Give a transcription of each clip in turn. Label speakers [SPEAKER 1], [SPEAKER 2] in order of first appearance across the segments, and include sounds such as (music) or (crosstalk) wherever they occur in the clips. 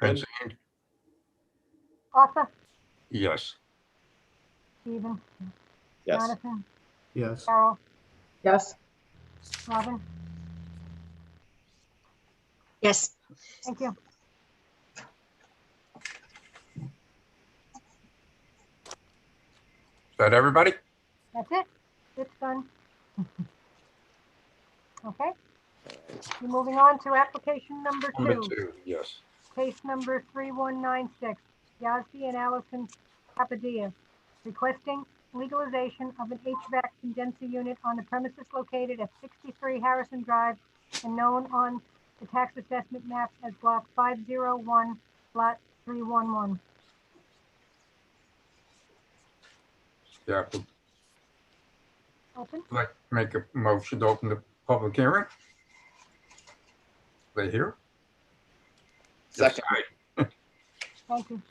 [SPEAKER 1] Benzine?
[SPEAKER 2] Arthur,
[SPEAKER 1] Yes.
[SPEAKER 2] Stephen,
[SPEAKER 3] Yes.
[SPEAKER 2] Jonathan,
[SPEAKER 4] Yes.
[SPEAKER 2] Carol,
[SPEAKER 5] Yes.
[SPEAKER 2] Robin,
[SPEAKER 5] Yes.
[SPEAKER 2] thank you.
[SPEAKER 1] Is that everybody?
[SPEAKER 2] That's it. It's done. (laughs) Okay. We're moving on to application number
[SPEAKER 1] Number
[SPEAKER 2] two,
[SPEAKER 1] two, yes.
[SPEAKER 2] case number 3196, Yazdi and Allison Papadia, requesting legalization of an HVAC condenser unit on the premises located at 63 Harrison Drive and known on the tax assessment map as block 501, lot 311.
[SPEAKER 1] Yeah, I'd
[SPEAKER 2] Open?
[SPEAKER 1] like to make a motion to open the public hearing. They here?
[SPEAKER 3] Second.
[SPEAKER 2] Thank you.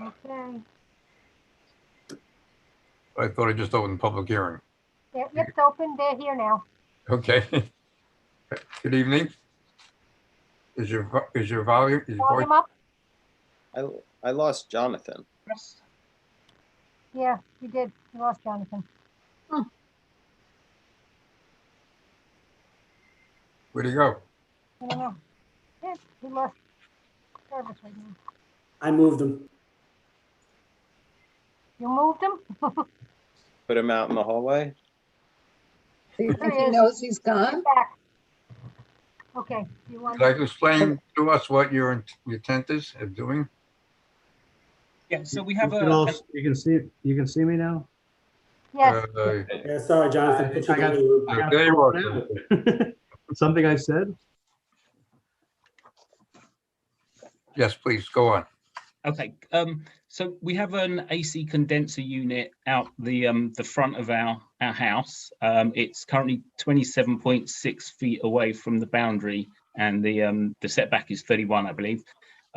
[SPEAKER 2] Okay,
[SPEAKER 1] I thought I just opened the public hearing.
[SPEAKER 2] Yeah, it's open, they're here now.
[SPEAKER 1] Okay. Good evening. Is your, vo- is your volume, is your
[SPEAKER 2] Volume
[SPEAKER 1] voice,
[SPEAKER 2] up?
[SPEAKER 3] I, I lost Jonathan.
[SPEAKER 5] Yes.
[SPEAKER 2] Yeah, you did, you lost Jonathan.
[SPEAKER 1] where'd he go?
[SPEAKER 2] I don't know. Yeah, he lost service right now.
[SPEAKER 6] I moved him.
[SPEAKER 2] You moved him?
[SPEAKER 3] Put him out in the hallway.
[SPEAKER 5] Do you think
[SPEAKER 2] There
[SPEAKER 5] he
[SPEAKER 2] is.
[SPEAKER 5] knows he's
[SPEAKER 2] (laughs)
[SPEAKER 5] gone?
[SPEAKER 2] Back. Okay, you want,
[SPEAKER 1] Would you explain to us what your int- your intent is of doing?
[SPEAKER 7] Yeah, so we have
[SPEAKER 4] You can all-
[SPEAKER 7] a,
[SPEAKER 4] You can see, you can see me now? (laughs)
[SPEAKER 2] yes,
[SPEAKER 1] Uh,
[SPEAKER 6] Yeah, sorry, Jonathan. put you
[SPEAKER 4] I got-
[SPEAKER 6] in the loop.
[SPEAKER 4] I got
[SPEAKER 1] There you are.
[SPEAKER 4] Something I said?
[SPEAKER 1] Yes, please, go on.
[SPEAKER 7] okay, um, so we have an AC condenser unit out the, um, the front of our, our house. Um, it's currently twenty-seven point six feet away from the boundary and the, um, the setback is thirty-one, I believe.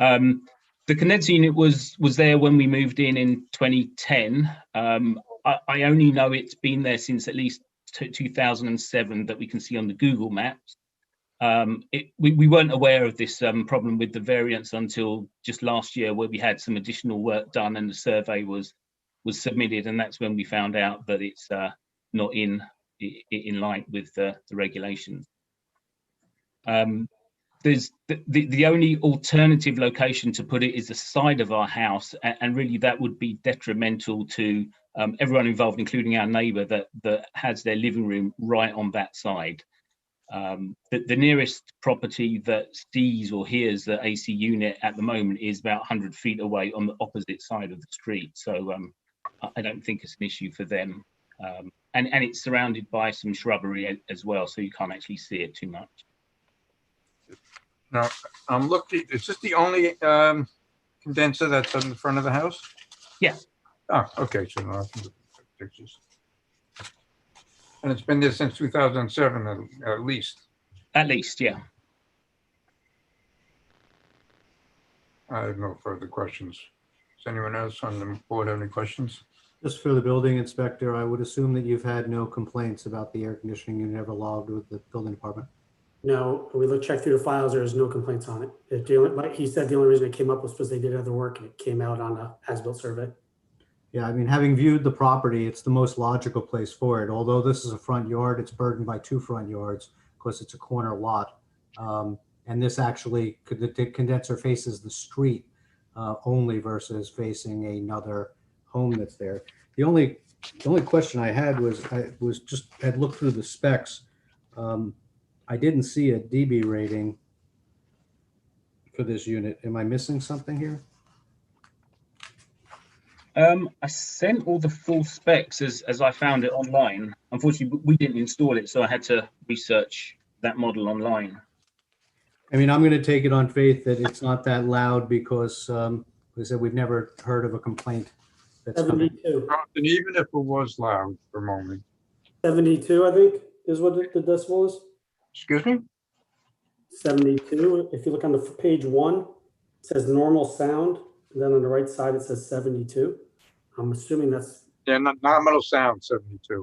[SPEAKER 7] Um, the condenser unit was, was there when we moved in in twenty ten. Um, I, I only know it's been there since at least two thousand and seven that we can see on the Google Maps. Um, it, we, we weren't aware of this um, problem with the variance until just last year, where we had some additional work done and the survey was was submitted, and that's when we found out that it's uh, not in i- i- in line with the, the regulations. Um, there's the, the the only alternative location to put it is the side of our house, and, and really that would be detrimental to um, everyone involved, including our neighbour that that has their living room right on that side. Um, the, the nearest property that sees or hears the AC unit at the moment is about 100 feet away on the opposite side of the street. So um, I, I don't think it's an issue for them. Um, and, and it's surrounded by some shrubbery a- as well, so you can't actually see it too much.
[SPEAKER 1] I'm looking, is this Um, the only um, condenser that's on the front of the house?
[SPEAKER 7] Yeah.
[SPEAKER 1] Oh, okay, so now I can look at the pictures. And it's been there since 2007 at- at least.
[SPEAKER 7] At least, yeah.
[SPEAKER 1] I have no further questions. Does anyone else on the board have any questions?
[SPEAKER 4] Just for the building inspector, I would assume that you've had no complaints about the air conditioning unit ever logged with the building department.
[SPEAKER 6] No, we looked, checked through the files. There is no complaints on it. It, the only- like he said, the only reason it came up was because they did other work and it came out on a as-built survey.
[SPEAKER 4] Yeah, I mean, having viewed the property, it's the most logical place for it. Although this is a front yard, it's burdened by two front yards because it's a corner lot. Um, and this actually, could the the condenser faces the street uh, only versus facing another home that's there. The only, the only question I had was, I was just, had looked through the specs. Um, I didn't see a DB rating for this unit. Am I missing something here?
[SPEAKER 7] Um, I sent all the full specs as, as I found it online. Unfortunately, we didn't install it, so I had to research that model online.
[SPEAKER 4] I mean, I'm going to take it on faith that it's not that loud because, um, like I said, we've never heard of a complaint. that's coming.
[SPEAKER 6] 72,
[SPEAKER 1] And even if it was loud for a moment,
[SPEAKER 6] 72, I think, is what the the decimal is.
[SPEAKER 1] excuse me?
[SPEAKER 6] 72, if you look on the f- page one, it says normal sound, and then on the right side, it says 72. I'm assuming that's,
[SPEAKER 1] Yeah, no- nominal sound 72.